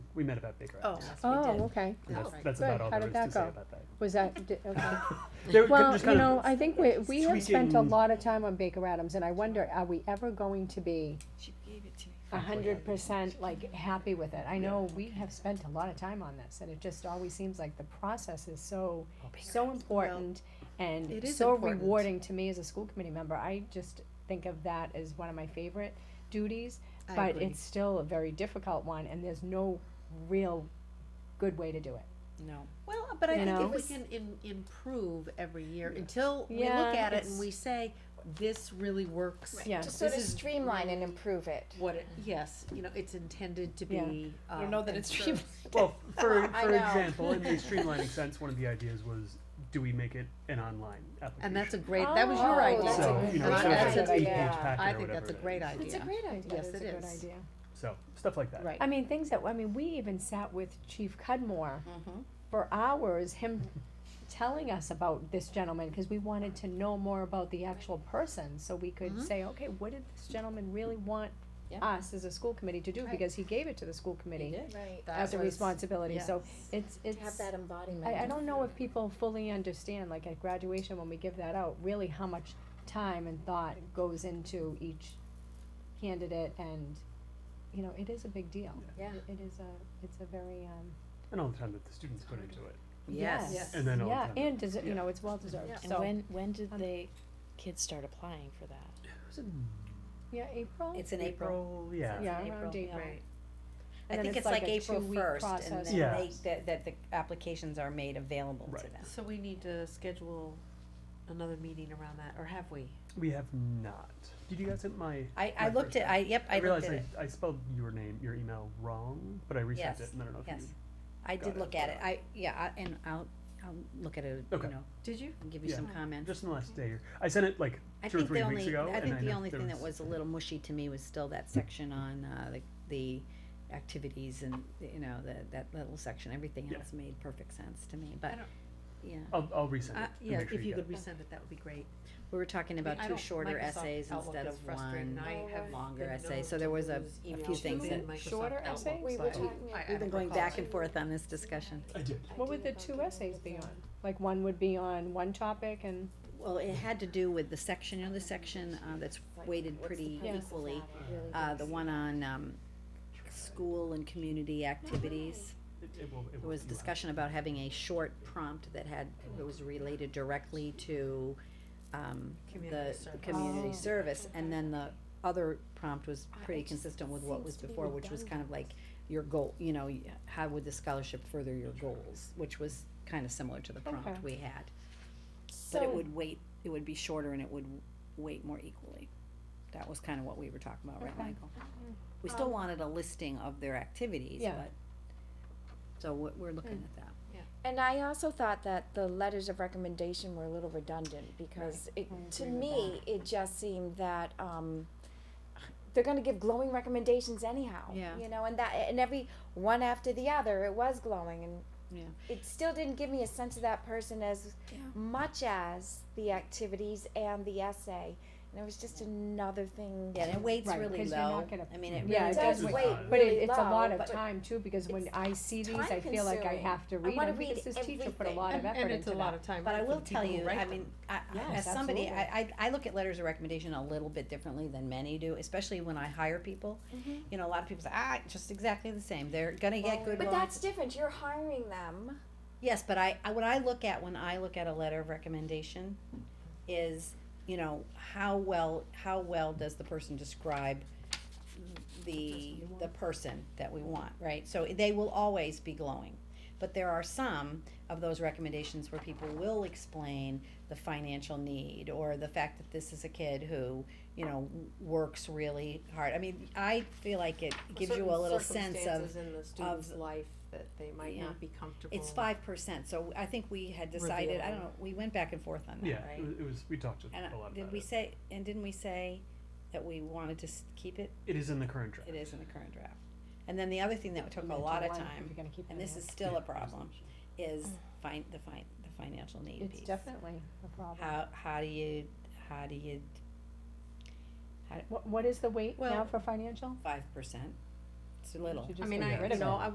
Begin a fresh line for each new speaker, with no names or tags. We met about Baker
Oh,
Island.
yes, we
Oh,
did.
okay.
And That's,
Alright.
that's
Good.
about all
How
there
did
is to
that
say
go?
about that.
Was that, di- okay.
They were kind
Well,
of-
you know, I think we, we have spent a
tweaking-
lot of time on Baker Adams, and I wonder, are we ever going to be
She gave it to me.
a hundred percent like happy with it? I know we have spent a lot of time on this, and it just always seems like the process is so, so important and
it is
so
important.
rewarding to me as a school committee member. I just think of that as one of my favorite duties,
I
but
agree.
it's still a very difficult one, and there's no real good way to do it.
No.
Well, but I
You
think
know?
if we can im- improve every year until we look
Yeah,
at it
it's-
and we say, this really works.
Yeah.
To sort of
This is
streamline and
really
improve it.
What it, yes, you know, it's intended to
Yeah.
be.
I
um,
don't know that
and
it's
serve-
true.
Well, for,
I
for
know.
example, in the streamlining sense, one of the ideas was, do we make it an online application?
And that's a great, that was your
Oh,
idea.
that's a
So,
good
you know,
And
so
that's
it's
an
an eight-page
idea.
packet
I
or
think
whatever
that's a
it
great
is.
It's a
idea.
great Mm-hmm. idea.
Yes,
It's
it
a good
is.
idea.
So, stuff like that.
Right.
I mean, things that, I mean, we even sat with Chief Cudmore
Mhm.
for hours, him telling us about this gentleman, cause we wanted to know more about the actual person, so we could
Mhm.
say, okay, what did this gentleman really want
Yeah.
us as a school committee to do,
Right.
because he gave it to the school committee
did.
Right.
That
as a
was-
responsibility, so
yes.
it's,
To have
it's,
that embodiment.
I, I don't know if people fully understand, like at graduation, when we give that out, really how much time and thought goes into each candidate and, you know, it is a big deal.
Yeah.
It is a, it's a very, um,
And all the time that the students put into it.
Yes.
Yes.
And then all the
yeah,
time.
and deser- you
Yeah.
know, it's well deserved,
Yeah.
so.
when did
um,
they, kids start applying for that?
Was it in
Yeah, April?
It's in Oh, April.
Yeah.
Yeah,
in
around
April, yeah.
April.
I
And then
think it's like
a
April
two-week
first and
process.
then
Yeah.
they, that, that the applications are made available to
Right.
them.
So we need to schedule another meeting around that, or have we?
We have not. Did you guys sent my? my
I, I looked
first
at, I, yep, I looked
realized
at it.
I, I spelled your name, your email wrong, but I resent
Yes,
it, and I don't know if
yes.
you.
I
got
did
it,
look at it.
yeah.
I, yeah, I, and I'll, I'll look at it, you
Okay.
know,
Did you?
and give you
Yeah.
some comments.
Just in the last day, or I sent it like
I
two or
think
three
the
weeks
only,
ago.
I
and
think the
know
only
there
thing that
was-
was a little mushy to me was still that section on, uh, the, the activities and, you know, the, that little section. Everything
Yeah.
else made perfect sense to me,
I
but,
don't-
yeah.
I'll, I'll resend it.
Uh,
and
yeah,
make sure
If you
get
could resend it, that would be great.
We were talking about
I
two
don't-
shorter
Microsoft
essays
Outlook
instead
is
of
frustrating.
one
I have
longer
been
essay,
known
so
to
there was a,
lose
a few
emails
things
in
that,
Microsoft
shorter
Outlook,
essays?
We
so
were
I-
talking-
I- I
we've been
don't
going
recall.
back and forth on this discussion.
I did.
What would the two essays be on? Like one would be on one topic and,
Well, it had to do with the section, you know, the section, uh, that's weighted pretty
purpose
equally. Uh, the one on, um, school and community activities.
It, it will, it
There
will
was
you will.
discussion about having a short prompt that had, that was related directly to, um,
Community
the
service.
community
Oh.
service, and then the other prompt was
I-
pretty
it just
consistent with what
seems
was
to be
before, which was kind of like your goal, you know, y- how would the scholarship further your goals, which was kind of similar to the
Okay.
prompt we had. But
So,
it would weight, it would be shorter and it would weight more equally. That was kind of what we were talking about, right,
Okay. Mm-hmm.
Michael? We still
Um,
wanted a listing of their activities,
Yeah. Mm.
but, so we're, we're looking at that.
and I also thought that the letters of recommendation were a little redundant because it,
Mm-hmm.
to me, it just seemed that, um, they're gonna give glowing recommendations anyhow.
Yeah.
You know, and that, and every one after the other, it was glowing and
Yeah.
it still didn't give me a sense of that person as
Yeah.
much as the activities and the essay. And it was just another thing.
Yeah, and it weights
Right,
really
'cause you're not
low,
gonna-
I mean, it
Yeah,
really
it
does
does
weigh.
weight.
but
really
it, it's a
low,
lot of
but-
time too, because when I see these, I feel like I
time-consuming.
have to
I
read
wanna
them, because
read
this teacher put a
everything.
lot of
And-
effort into that.
And it's a lot of time.
But I
for
will
the
tell
people who
you,
write
I
them.
mean, I, I-
Yes,
as somebody, I,
absolutely.
I, I look at letters of recommendation a little bit differently than many do, especially when I hire people.
Mm-hmm.
Mhm.
You know, a lot of people say, ah, it's just exactly the same, they're gonna
Oh.
get good
But
ones.
that's different. You're hiring them.
Yes, but I, I, what I look at when I look at a letter of recommendation is, you know, how well, how well does the person describe the, the person that we want, right? So they will always be glowing. But there are some of those recommendations where people will explain the financial need or the fact that this is a kid who, you know, w- works really hard. I mean, I feel like it gives you a
Certain
little sense of
circumstances in the student's life that they might
Yeah.
not be comfortable.
Oh.
it's five percent, so I think we had decided, I don't know, we went back and forth on
Yeah, it
that, right?
was, it was. We talked a
And uh,
a lot
did
about
we
it.
say, and didn't we say that we wanted to s- keep it?
It is in the current draft.
It is in the current draft. And then the other thing that took a
Into
lot of
one, if
time,
you're gonna keep
and
that
this
in.
is
Yeah,
still a
it was
problem,
in the-
is fin- the fin- the financial need piece.
It's definitely a problem.
How, how do you, how do you,
What, what is the weight now
Well,
for financial?
five percent? It's a little.
Should
I
just
mean,
get
I,
rid of
you know,
it.
I